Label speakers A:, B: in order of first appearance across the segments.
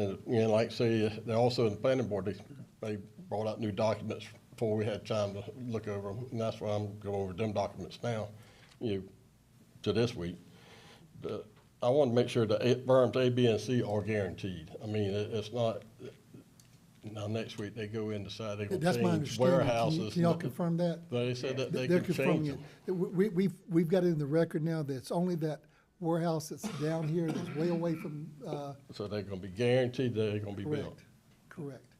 A: And, you know, like I say, they're also in the planning board, they, they brought out new documents before we had time to look over them, and that's why I'm going over them documents now, you know, to this week. But I want to make sure that A- berms A, B, and C are guaranteed. I mean, it, it's not, now, next week, they go in, decide they're
B: That's
A: gonna
B: my
A: change
B: understanding. Can you-
A: warehouses.
B: Can y'all confirm that?
A: They said that they
B: They're
A: can change
B: confirming
A: them.
B: it. We, we- we've, we've got it in the record now that it's only that warehouse that's down here that's way away from, uh,
A: So they're gonna be guaranteed that they're gonna be built.
B: correct, correct.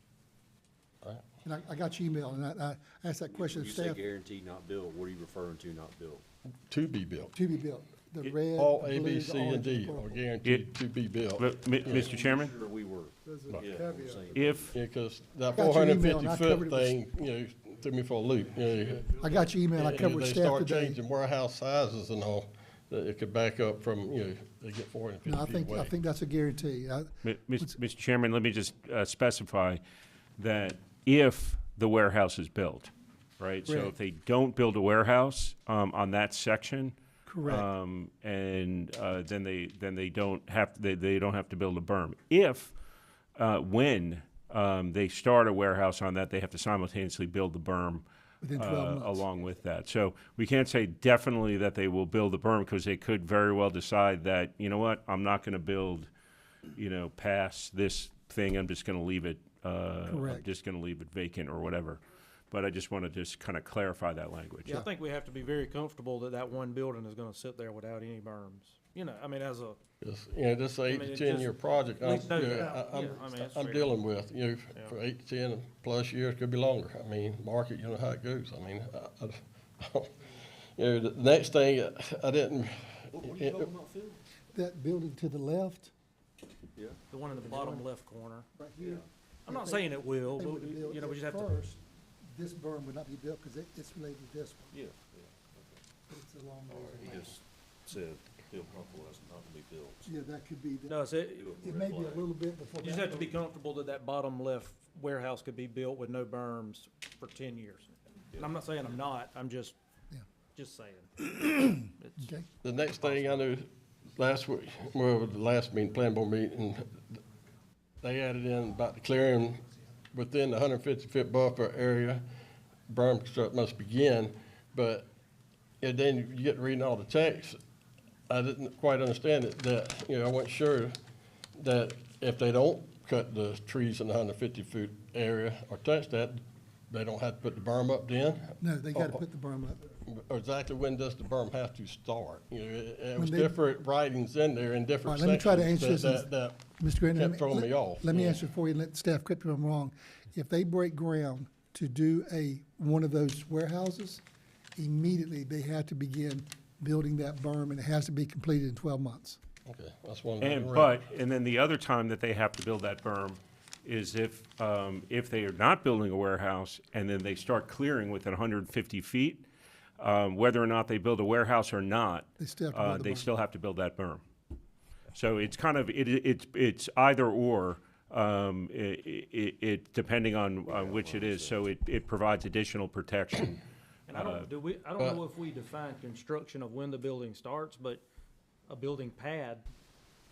A: All right.
B: And I, I got your email and I, I asked that question
C: When
B: of
C: you say
B: staff
C: guaranteed not built, what are you referring to not built?
A: To be built.
B: to be built. The red,
A: All
B: the
A: A,
B: blue,
A: B,
B: the
A: C,
B: orange,
A: and
B: the
A: D
B: purple.
A: are guaranteed to be built.
D: Look, mi- Mr. Chairman,
C: Sure, we were.
B: There's a
C: Yeah,
B: caveat.
C: I'm saying-
D: if,
A: Yeah, 'cause that
B: got
A: four
B: your
A: hundred and
B: email and
A: fifty
B: I covered
A: foot
B: it with-
A: thing, you know, threw me for a loop, you know.
B: I got your email. I
A: Yeah,
B: covered staff
A: They start
B: today.
A: changing warehouse sizes and all, that it could back up from, you know, they get four hundred and
B: No, I
A: fifty feet
B: think, I
A: away.
B: think that's a guarantee. I-
D: mi- mis- Mr. Chairman, let me just uh, specify that if the warehouse is built, right? So
B: Correct.
D: if they don't build a warehouse um, on that section.
B: Correct.
D: um, And uh, then they, then they don't have, they, they don't have to build a berm. If, uh, when um, they start a warehouse on that, they have to simultaneously build the berm.
B: Within
D: uh,
B: 12 months.
D: Along with that. So we can't say definitely that they will build the berm because they could very well decide that, you know what, I'm not going to build, you know, past this thing, I'm just going to leave it, uh, I'm
B: Correct.
D: just going to leave it vacant or whatever. But I just want to just kind of clarify that language.
E: Yeah, I think we have to be very comfortable that that one building is gonna sit there without any berms. You know, I mean, as a,
A: It's, You know, this eight
E: mean,
A: to
E: it
A: ten
E: just-
A: year project, I'm,
E: least no
A: you know,
E: doubt.
A: I- I'm,
E: Yeah, I mean, it's
A: I'm
E: fair.
A: dealing with, you know, for eight to ten plus years, could be longer. I mean, market, you know how it goes, I mean, I, I, you know, the next thing, I didn't.
B: That building to the left,
C: Yeah,
E: the one in the bottom left corner.
B: right here.
E: I'm not saying it will,
B: They
E: but,
B: would have
E: we-
B: built
E: you know, we
B: it
E: just have to,
B: first. This berm would not be built because it's related to this one.
C: yeah.
B: but It's along
C: He
B: those lines.
C: just said, Bill Crumpel is not gonna be built.
B: Yeah, that could be, the-
E: no, it's, it, you
B: it may be a little bit before.
E: just
B: that.
E: have to be comfortable that that bottom left warehouse could be built with no berms for ten years. And I'm not saying I'm not, I'm just,
B: Yeah.
E: just saying.
B: Okay,
A: The next thing I knew, last week, well, the last meeting, planning board meeting, they added in about the clearing within the hundred and fifty foot buffer area, berm construct must begin, but, and then you get to reading all the text. I didn't quite understand it, that, you know, I wasn't sure that if they don't cut the trees in the hundred and fifty foot area or touch that, they don't have to put the berm up then?
B: no, they got to
A: Oh,
B: put the berm up.
A: exactly when does the berm have to start? You know, it, it was
B: they-
A: different writings in there in
B: All
A: different
B: right,
A: sections.
B: let me try to answer this.
A: that-
B: and-
A: that-
B: Mr. Grant, let
A: kept
B: me-
A: throwing
B: let-
A: me off,
B: Let me
A: yeah.
B: answer for you, and let staff correct me if I'm wrong. If they break ground to do a, one of those warehouses, immediately they have to begin building that berm, and it has to be completed in twelve months.
A: that- Okay, that's one. thing I
D: And,
A: read.
D: but, and then the other time that they have to build that berm is if, um, if they are not building a warehouse and then they start clearing within hundred and fifty feet, um, whether or not they build a warehouse or not,
B: They still have to
D: uh,
B: build the
D: they
B: berm.
D: still have to build that berm. So it's kind of, it, it- it's, it's either or, um, i- i- i- it, depending on, on which it is. So it, it provides additional protection.
E: And I don't, do we, I don't know if we define construction of when the building starts, but a building pad,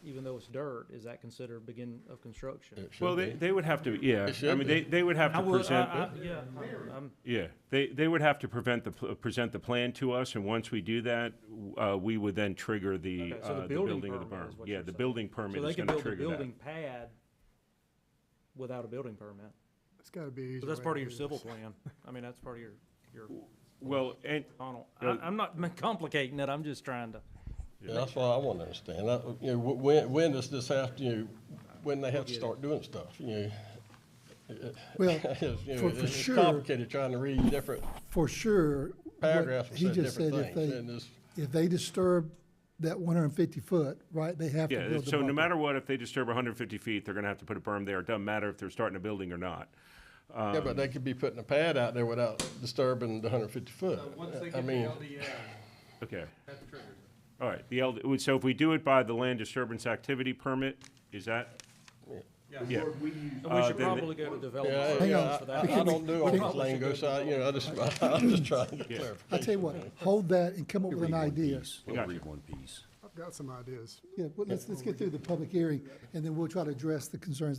E: even though it's dirt, is that considered begin of construction?
A: It should
D: Well, they,
A: be.
D: they would have to, yeah, I
A: should
D: mean,
A: be.
D: they, they would have
E: I
D: to
E: would,
D: present.
E: I, um, I, yeah, I'm,
D: Yeah, they, they would have to prevent the, pl- present the plan to us, and once we do that, w- uh, we would then trigger the,
E: Okay, so the
D: uh, the
E: building
D: building of the
E: permit
D: berm.
E: is what
D: Yeah,
E: you're
D: the
E: saying.
D: building
E: so
D: permit
E: they
D: is
E: can
D: gonna
E: build a
D: trigger that.
E: building pad without a building permit.
B: It's got to be easier.
E: So that's part of your civil plan. I mean, that's part of your, your,
D: Well, and,
E: Donald,
D: Yeah.
E: I, I'm not complicating it, I'm just trying to.
A: Yeah, That's what I want to understand. That, you know, wh- when, when does this have to, you know, when they have to start doing stuff, you know?
B: Well,
A: It's, you know,
B: for,
A: it-
B: for
A: It's
B: sure,
A: complicated trying to read different
B: for sure. what
A: paragraphs that
B: He
A: said
B: just said
A: different
B: if
A: things. and
B: they,
A: it's-
B: if they disturb that one hundred and fifty foot, right, they have to build the
D: yeah,
B: berm.
D: so no matter what, if they disturb hundred and fifty feet, they're gonna have to put a berm there. It doesn't matter if they're starting a building or not. Um,
A: Yeah, but they could be putting a pad out there without disturbing the hundred fifty foot. I mean,
D: Okay. All right, the LD, so if we do it by the land disturbance activity permit, is that? Yeah.
E: And we
D: Uh,
E: should
D: then the-
E: probably go to
A: yeah,
E: development
B: Hang
A: yeah,
E: services
B: on.
E: for
A: I, I
E: that.
A: don't do all this lingo, so, I- you know, I just, I'm just trying to get
D: Yeah.
A: clarification.
B: I tell you what, hold that and come up with an idea.
D: We'll Gotcha. read
C: one piece.
F: I've got some ideas.
B: Yeah, well, let's, let's get through the public hearing, and then we'll try to address the concerns